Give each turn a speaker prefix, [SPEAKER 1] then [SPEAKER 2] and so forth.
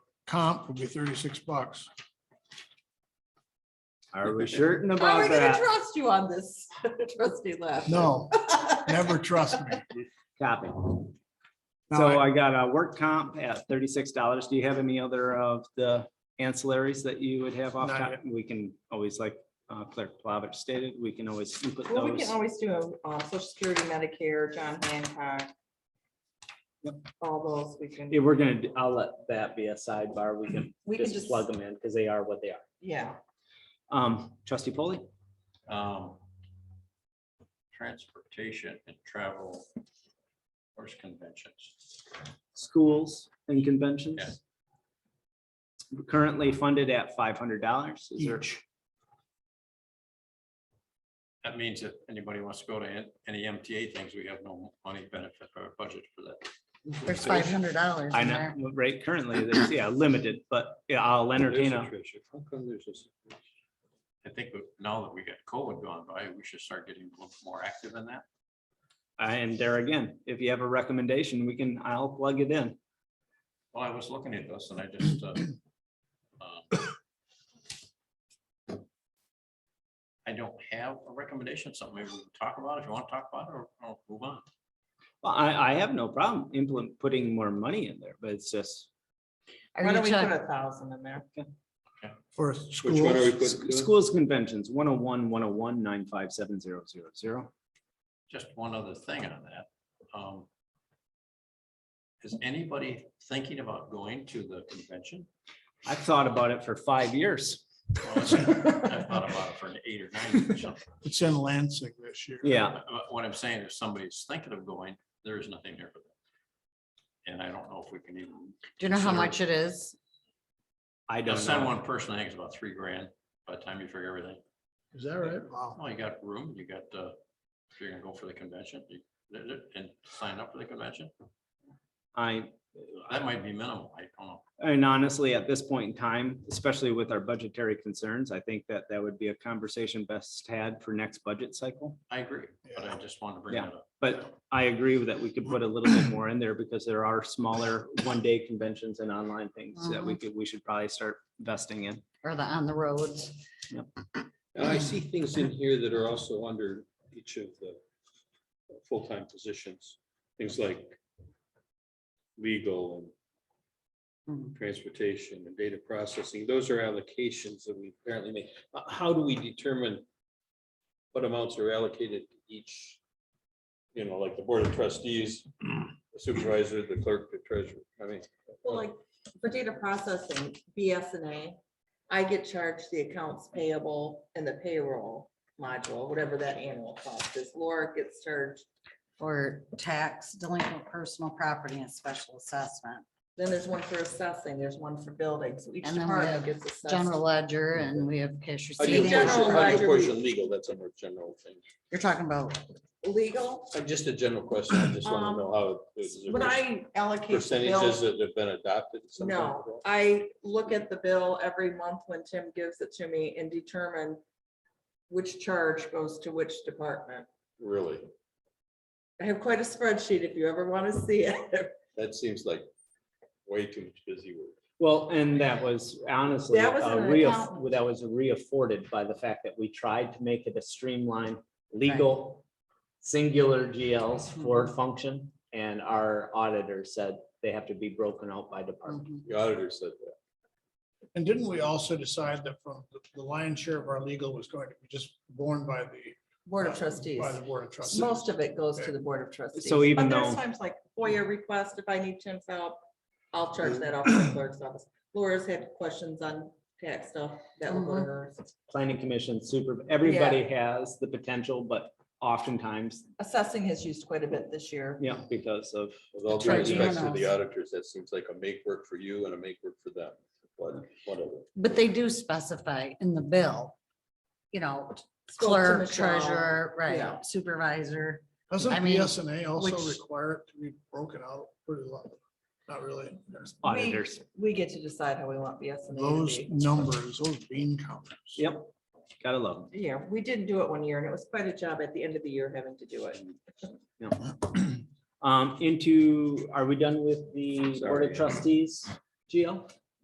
[SPEAKER 1] comp will be thirty-six bucks.
[SPEAKER 2] Are we certain
[SPEAKER 3] How are we
[SPEAKER 2] about
[SPEAKER 3] gonna
[SPEAKER 2] that?
[SPEAKER 3] trust you on this, trustee left?
[SPEAKER 1] No, never trust me.
[SPEAKER 2] Copy.
[SPEAKER 1] No,
[SPEAKER 2] So I got a work comp at thirty-six dollars. Do you have any other of the ancillaries that you would have off?
[SPEAKER 1] Not
[SPEAKER 2] top? We can always, like uh, Clerk Plavich stated, we can always input
[SPEAKER 4] Well, we
[SPEAKER 2] those.
[SPEAKER 4] can always do a, um, social security, Medicare, John Hancock. All those we can,
[SPEAKER 2] Yeah, we're gonna, d- I'll let that be a sidebar. We can
[SPEAKER 4] we can
[SPEAKER 2] just
[SPEAKER 4] just,
[SPEAKER 2] plug them in because they are what they are.
[SPEAKER 4] yeah,
[SPEAKER 2] Um, trustee Polly,
[SPEAKER 5] um, transportation and travel, horse conventions.
[SPEAKER 2] schools and conventions. Currently funded at five hundred dollars. Is there
[SPEAKER 1] Each.
[SPEAKER 5] That means if anybody wants to go to an- any MTA things, we have no money benefit or budget for that.
[SPEAKER 6] There's five hundred dollars
[SPEAKER 2] I
[SPEAKER 6] in
[SPEAKER 2] know,
[SPEAKER 6] there.
[SPEAKER 2] right, currently, there's, yeah, limited, but yeah, I'll entertain a,
[SPEAKER 5] I think we- now that we got COVID gone by, we should start getting a little more active in that.
[SPEAKER 2] and there again, if you have a recommendation, we can, I'll plug it in.
[SPEAKER 5] Well, I was looking at this and I just, uh, um, I don't have a recommendation, something maybe we can talk about if you want to talk about it or or move on.
[SPEAKER 2] Well, I, I have no problem implement, putting more money in there, but it's just
[SPEAKER 4] why
[SPEAKER 6] Are
[SPEAKER 4] don't
[SPEAKER 6] you
[SPEAKER 4] we put
[SPEAKER 6] talking,
[SPEAKER 4] a thousand in there?
[SPEAKER 1] For
[SPEAKER 7] Which one are we
[SPEAKER 1] schools,
[SPEAKER 7] putting? doing?
[SPEAKER 2] schools conventions, 101, 101, 957, 000.
[SPEAKER 5] just one other thing on that. Um, Is anybody thinking about going to the convention?
[SPEAKER 2] I've thought about it for five years.
[SPEAKER 5] Well, it's- I've thought about it for an eight or nine years. or something.
[SPEAKER 1] it's in Lansing this year.
[SPEAKER 2] Yeah,
[SPEAKER 5] But What I'm saying is somebody's thinking of going, there is nothing here for them. And I don't know if we can even,
[SPEAKER 6] do you know how
[SPEAKER 5] Sorry.
[SPEAKER 6] much it is?
[SPEAKER 2] I
[SPEAKER 5] to
[SPEAKER 2] don't
[SPEAKER 5] send
[SPEAKER 2] know.
[SPEAKER 5] one person, I think it's about three grand by the time you figure everything.
[SPEAKER 1] Is that right? Wow.
[SPEAKER 5] Well, you got room, you got, uh, if you're gonna go for the convention, you- and sign up for the convention,
[SPEAKER 2] I,
[SPEAKER 5] that might be minimal, I don't know.
[SPEAKER 2] and honestly, at this point in time, especially with our budgetary concerns, I think that that would be a conversation best had for next budget cycle.
[SPEAKER 5] I agree, but I just wanted to bring
[SPEAKER 2] Yeah.
[SPEAKER 5] that up.
[SPEAKER 2] But I agree with that. We could put a little bit more in there because there are smaller one-day conventions and online things that
[SPEAKER 4] Uh-huh.
[SPEAKER 2] we could, we should probably start investing in.
[SPEAKER 6] Or the on the roads?
[SPEAKER 7] Now, I see things in here that are also under each of the full-time positions, things like legal and
[SPEAKER 6] Mhm.
[SPEAKER 7] transportation and data processing. Those are allocations that we apparently make. H- How do we determine what amounts are allocated to each? You know, like the board of trustees, the supervisor, the clerk, the treasurer. I mean,
[SPEAKER 4] Well, like, for data processing, BSNA, I get charged the accounts payable and the payroll module, whatever that annual cost is. Laura gets charged,
[SPEAKER 6] Or tax delinquent personal property and special assessment,
[SPEAKER 4] then there's one for assessing, there's one for building, so each
[SPEAKER 6] And then we
[SPEAKER 4] department
[SPEAKER 6] have
[SPEAKER 4] gets assessed.
[SPEAKER 6] general ledger, and we have cash
[SPEAKER 7] how do you
[SPEAKER 4] See,
[SPEAKER 6] receipts.
[SPEAKER 7] portion-
[SPEAKER 4] general
[SPEAKER 7] how do you
[SPEAKER 4] ledger-
[SPEAKER 7] portion legal? That's under general thing.
[SPEAKER 6] You're talking about,
[SPEAKER 4] Legal,
[SPEAKER 7] Uh, Just a general question. I just want
[SPEAKER 4] Um,
[SPEAKER 7] to know how. it- is there
[SPEAKER 4] when I allocate the
[SPEAKER 7] Percentages
[SPEAKER 4] bill,
[SPEAKER 7] that have been adopted. something like
[SPEAKER 4] no, I look at the bill every month when Tim gives it to me and determine which charge goes to which department.
[SPEAKER 7] that? Really?
[SPEAKER 4] I have quite a spreadsheet if you ever want to see it.
[SPEAKER 7] That seems like way too much busy work.
[SPEAKER 2] Well, and that was honestly,
[SPEAKER 4] That was
[SPEAKER 2] uh,
[SPEAKER 4] an
[SPEAKER 2] re-
[SPEAKER 4] accountant.
[SPEAKER 2] that was reafforded by the fact that we tried to make it a streamlined, legal, singular GLs for
[SPEAKER 4] Mm-hmm.
[SPEAKER 2] function, and our auditor said they have to be broken out by department.
[SPEAKER 6] mhm,
[SPEAKER 7] The auditor said that.
[SPEAKER 1] And didn't we also decide that from the- the lion's share of our legal was going to be just borne by the.
[SPEAKER 4] Board of
[SPEAKER 1] uh,
[SPEAKER 4] Trustees.
[SPEAKER 1] By the board of trustees.
[SPEAKER 4] Most of it goes to the Board of Trustees.
[SPEAKER 2] So even
[SPEAKER 4] But there's
[SPEAKER 2] though-
[SPEAKER 4] Times like FOIA request, if I need Tim's help, I'll charge that off to the clerk's office. Laura's had questions on tax stuff, that will go to hers.
[SPEAKER 2] Planning commission, super, everybody has the potential, but oftentimes,
[SPEAKER 4] Assessing has used quite a bit this year.
[SPEAKER 2] yeah, because of,
[SPEAKER 7] With all due respect to
[SPEAKER 6] Tribunals.
[SPEAKER 7] the auditors, that seems like a make work for you and a make work for them. But whatever.
[SPEAKER 6] but they do specify in the bill, you know,
[SPEAKER 4] Spoke to
[SPEAKER 6] clerk,
[SPEAKER 4] Michelle.
[SPEAKER 6] treasurer,
[SPEAKER 4] yeah.
[SPEAKER 6] right, supervisor.
[SPEAKER 1] Doesn't
[SPEAKER 6] I mean,
[SPEAKER 1] BSNA also
[SPEAKER 6] which-
[SPEAKER 1] require it to be broken out pretty lot? Not really. There's
[SPEAKER 4] We-
[SPEAKER 2] auditors.
[SPEAKER 4] We get to decide how we want the S and A
[SPEAKER 1] Those
[SPEAKER 4] to be.
[SPEAKER 1] numbers, those bean counters.
[SPEAKER 2] Yep, gotta love them.
[SPEAKER 4] Yeah, we didn't do it one year and it was quite a job at the end of the year having to do it.
[SPEAKER 2] Um, into, are we done with the Board
[SPEAKER 7] Sorry.
[SPEAKER 2] of Trustees, Gio?